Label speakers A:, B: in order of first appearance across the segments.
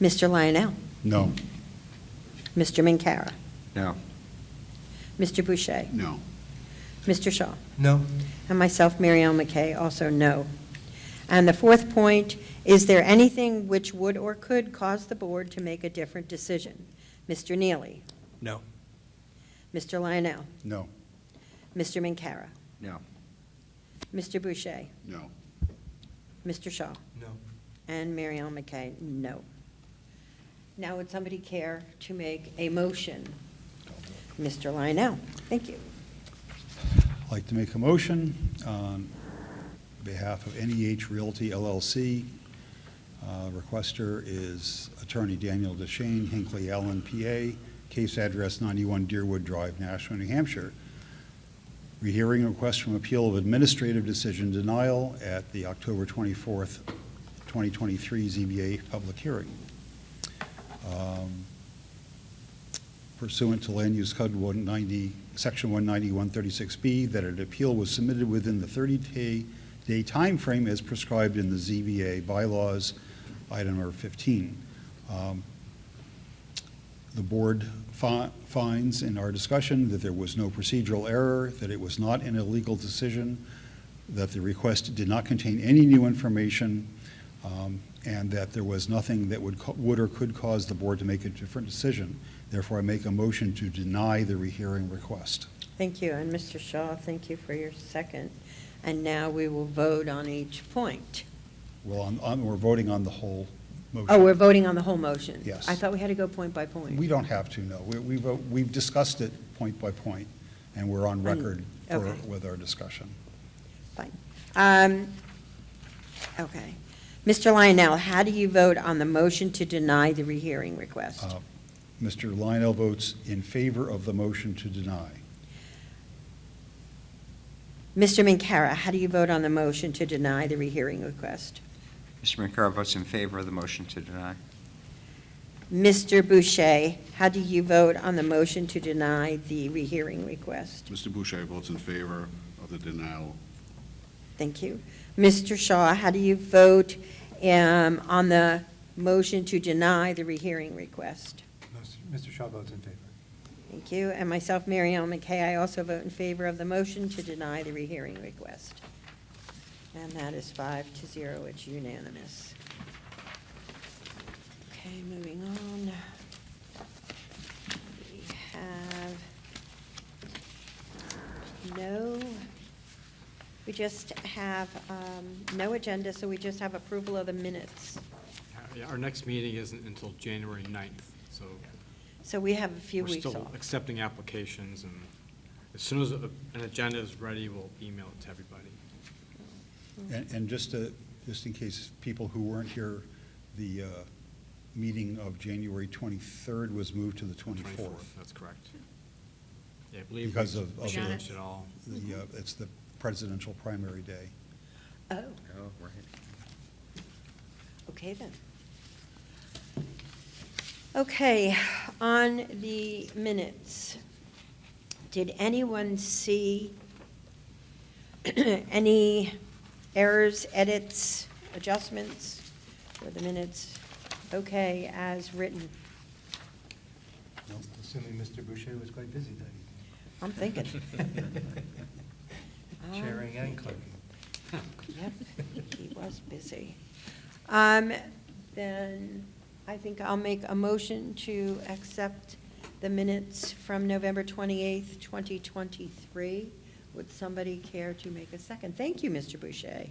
A: Mr. Lionel.
B: No.
A: Mr. Minkara.
C: No.
A: Mr. Boucher.
B: No.
A: Mr. Shaw.
D: No.
A: And myself, Mary Ellen McKay, also no. And the fourth point, is there anything which would or could cause the board to make a different decision? Mr. Neely.
D: No.
A: Mr. Lionel.
B: No.
A: Mr. Minkara.
C: No.
A: Mr. Boucher.
B: No.
A: Mr. Shaw.
D: No.
A: And Mary Ellen McKay, no. Now, would somebody care to make a motion? Mr. Lionel, thank you.
B: I'd like to make a motion on behalf of NEH Realty LLC. Uh, Requester is Attorney Daniel DeShane, Hinckley Allen, PA, case address 91 Deerwood Drive, Nashua, New Hampshire. Rehearing a request from appeal of administrative decision denial at the October 24th, 2023 ZBA public hearing. Um, pursuant to Land Use Code 190, Section 190-136B, that an appeal was submitted within the 30-day day timeframe as prescribed in the ZBA bylaws, item number 15. Um, The board fi- finds in our discussion that there was no procedural error, that it was not an illegal decision, that the request did not contain any new information, um, and that there was nothing that would, co- would or could cause the board to make a different decision. Therefore, I make a motion to deny the rehearing request.
A: Thank you, and Mr. Shaw, thank you for your second. And now we will vote on each point.
B: Well, on- on- we're voting on the whole motion.
A: Oh, we're voting on the whole motion?
B: Yes.
A: I thought we had to go point by point.
B: We don't have to, no. We- We, vote- we've discussed it point by point, and we're on record for,
A: Mm, okay.
B: with our discussion.
A: Fine. Um, Okay. Mr. Lionel, how do you vote on the motion to deny the rehearing request?
B: Uh, Mr. Lionel votes in favor of the motion to deny.
A: Mr. Minkara, how do you vote on the motion to deny the rehearing request?
C: Mr. Minkara votes in favor of the motion to deny.
A: Mr. Boucher, how do you vote on the motion to deny the rehearing request?
E: Mr. Boucher votes in favor of the denial.
A: Thank you. Mr. Shaw, how do you vote um, on the motion to deny the rehearing request?
D: Mr. Shaw votes in favor.
A: Thank you. And myself, Mary Ellen McKay, I also vote in favor of the motion to deny the rehearing request. And that is five to zero, it's unanimous. Okay, moving on. We have um, no, we just have um, no agenda, so we just have approval of the minutes.
F: Yeah, Our next meeting isn't until January 9th, so
A: So we have a few
F: we're
A: weeks off.
F: still accepting applications, and as soon as a- an agenda is ready, we'll email it to everybody.
A: Mm.
B: And, and just to, just in case people who weren't here, the uh, meeting of January 23rd was moved to the 24th.
F: That's correct. Yeah, I believe. we-
B: Because of-
F: we
B: of the-
F: Changed it all.
B: The,
A: Mm-hmm.
B: uh, It's the presidential primary day.
A: Oh,
C: Oh, right.
A: okay then. Okay, on the minutes, did anyone see any errors, edits, adjustments for the minutes? Okay, as written.
D: Assuming Mr. Boucher was quite busy that evening.
A: I'm thinking. Oh,
D: Chairing and clerking.
A: Yep, he was busy. Um, Then I think I'll make a motion to accept the minutes from November 28th, 2023. Would somebody care to make a second? Thank you, Mr. Boucher.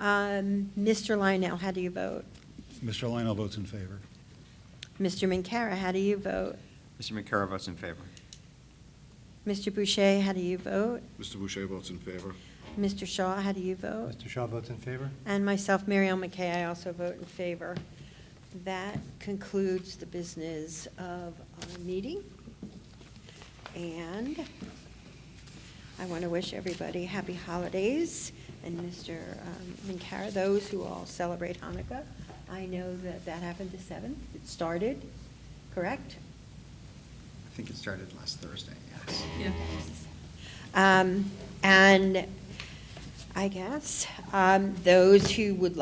A: Um, Mr. Lionel, how do you vote?
B: Mr. Lionel votes in favor.
A: Mr. Minkara, how do you vote?
C: Mr. Minkara votes in favor.
A: Mr. Boucher, how do you vote?
E: Mr. Boucher votes in favor.
A: Mr. Shaw, how do you vote?
D: Mr. Shaw votes in favor?
A: And myself, Mary Ellen McKay, I also vote in favor. That concludes the business of our meeting. And I want to wish everybody happy holidays, and Mr. um, Minkara, those who all celebrate Hanukkah. I know that that happened the 7th. It started, correct?
C: I think it started last Thursday, yes.
A: Um, And I guess um, those who would